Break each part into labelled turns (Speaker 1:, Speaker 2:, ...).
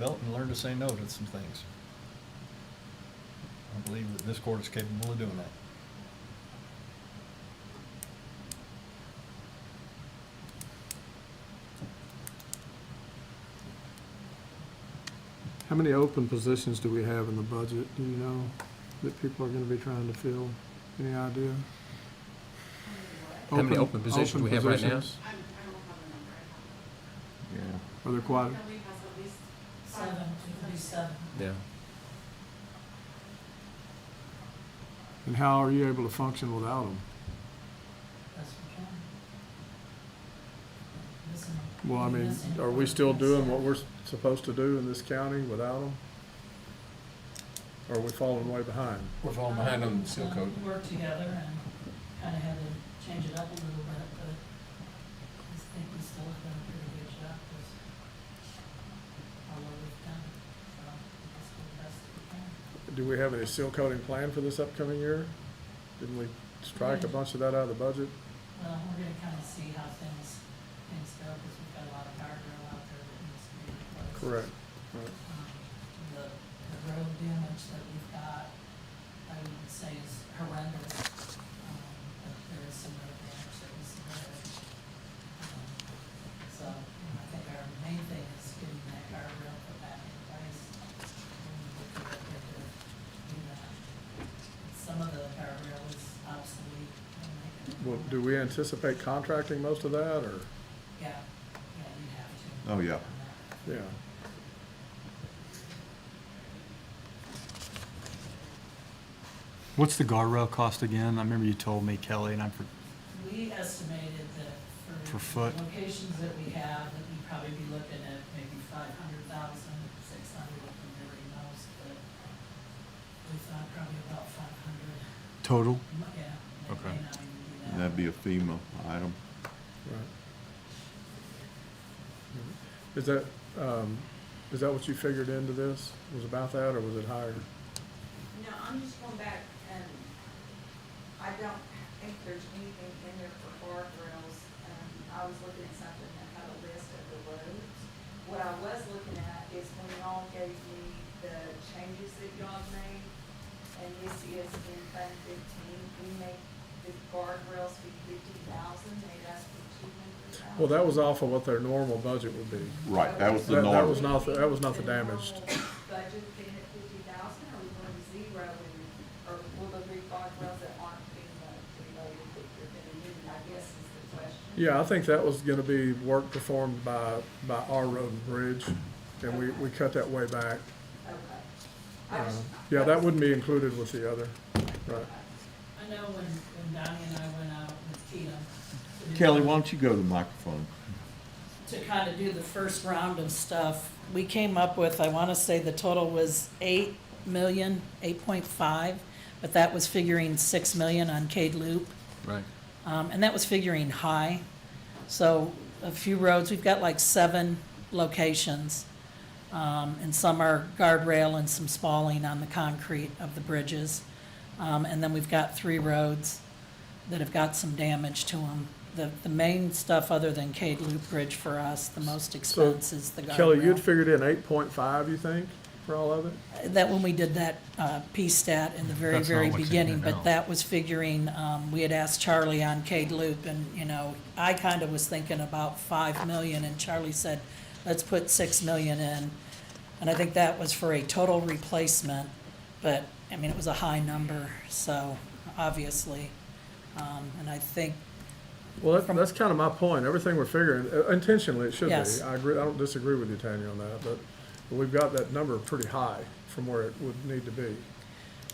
Speaker 1: belt and learn to say no to some things. I believe that this court is capable of doing that.
Speaker 2: How many open positions do we have in the budget, do you know, that people are gonna be trying to fill? Any idea?
Speaker 3: How many open positions we have right now?
Speaker 2: positions?
Speaker 4: I'm, I don't have a number. I have-
Speaker 1: Yeah.
Speaker 2: Are there quite,
Speaker 4: Kelly has at least
Speaker 5: Seven, it could be seven.
Speaker 3: Yeah.
Speaker 2: and how are you able to function without them?
Speaker 5: That's what I'm trying. Listen,
Speaker 2: Well, I mean,
Speaker 5: listen.
Speaker 2: are we still doing what we're supposed to do in this county without them? Or are we falling way behind?
Speaker 3: We're falling behind on the seal
Speaker 5: Um,
Speaker 3: code.
Speaker 5: we Worked together and kind of had to change it up a little bit, but I just think we still have done a pretty good job with all that we've done. So that's the best we can.
Speaker 2: Do we have any seal coating plan for this upcoming year? Didn't we strike a bunch of that out of the budget?
Speaker 5: Well, we're gonna kind of see how things, things go, because we've got a lot of power drill out there that needs to be replaced.
Speaker 2: Correct. Right.
Speaker 5: um, the, the road damage that we've got, I would say is horrendous. Um, But there is some road damage that was submitted. Um, So, you know, I think our main thing is getting that guardrail put back in place. and we will do what we have to do that. Some of the guardrail is obsolete. and they can-
Speaker 2: Well, do we anticipate contracting most of that, or,
Speaker 5: Yeah, yeah, you have to.
Speaker 1: Oh, yeah.
Speaker 2: yeah?
Speaker 6: What's the guardrail cost again? I remember you told me, Kelly, and I'm, for-
Speaker 5: We estimated that
Speaker 6: Per
Speaker 5: for
Speaker 6: foot.
Speaker 5: the locations that we have, that we'd probably be looking at maybe five hundred thousand, six hundred at the very most, but we thought probably about five hundred,
Speaker 6: total?
Speaker 5: yeah. that
Speaker 6: Okay.
Speaker 5: may not even be that.
Speaker 7: That'd be a FEMA item.
Speaker 2: Right. Is that, um, is that what you figured into this? Was about that, or was it higher?
Speaker 4: No, I'm just going back and I don't think there's anything in there for bar grills. Um, I was looking at something that had a list of the roads. What I was looking at is when y'all gave me the changes that y'all made, and this is in Fund fifteen, we make the guardrails be fifty thousand, they asked for two hundred thousand.
Speaker 2: Well, that was off of what their normal budget would be.
Speaker 7: Right, that was the
Speaker 2: That- that
Speaker 7: norm.
Speaker 2: was not the- that was not the damaged.
Speaker 4: The normal Budget being at fifty thousand, or we going to zero, and- or will there be guardrails that aren't being related that you're gonna need, I guess is the question.
Speaker 2: Yeah, I think that was gonna be work performed by, by our road and bridge, and we, we cut that way back.
Speaker 4: Okay. I
Speaker 2: Uh,
Speaker 4: just-
Speaker 2: Yeah, that wouldn't be included with the other, right?
Speaker 5: I know when, when Donnie and I went out with Keaton. to do
Speaker 7: Kelly,
Speaker 5: the-
Speaker 7: why don't you go to the microphone?
Speaker 5: to kind of do the first round of stuff, we came up with, I want to say the total was eight million, eight point five, but that was figuring six million on Cade Loop.
Speaker 3: Right.
Speaker 5: Um, and that was figuring high. So a few roads, we've got like seven locations. Um, and some are guardrail and some spalling on the concrete of the bridges. Um, and then we've got three roads that have got some damage to them. The, the main stuff other than Cade Loop Bridge for us, the most expense is the guardrail.
Speaker 2: Kelly, you'd figured in eight point five, you think, for all of it?
Speaker 5: That when we did that uh, PSTAT in the very,
Speaker 6: That's not
Speaker 5: very
Speaker 6: what's in
Speaker 5: beginning,
Speaker 6: there
Speaker 5: but
Speaker 6: now.
Speaker 5: that was figuring, um, we had asked Charlie on Cade Loop and, you know, I kind of was thinking about five million and Charlie said, let's put six million in. And I think that was for a total replacement, but, I mean, it was a high number, so obviously. Um, And I think
Speaker 2: Well, that- that's kind of my point. Everything we're figuring, uh, intentionally, it should be.
Speaker 5: Yes.
Speaker 2: I agree, I don't disagree with you, Tanya, on that, but we've got that number pretty high from where it would need to be.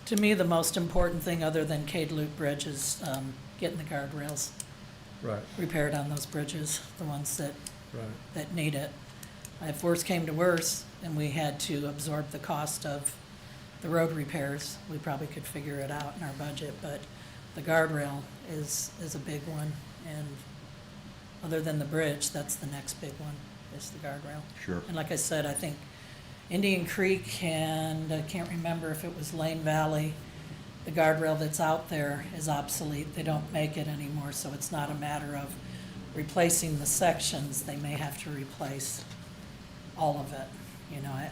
Speaker 5: To me, the most important thing other than Cade Loop Bridge is um, getting the guardrails
Speaker 2: Right,
Speaker 5: repaired on those bridges, the ones that,
Speaker 2: right.
Speaker 5: that need it. If worse came to worse and we had to absorb the cost of the road repairs, we probably could figure it out in our budget, but the guardrail is, is a big one. And other than the bridge, that's the next big one, is the guardrail.
Speaker 7: Sure.
Speaker 5: And like I said, I think Indian Creek and I can't remember if it was Lane Valley, the guardrail that's out there is obsolete. They don't make it anymore, so it's not a matter of replacing the sections. They may have to replace all of it. You know, I,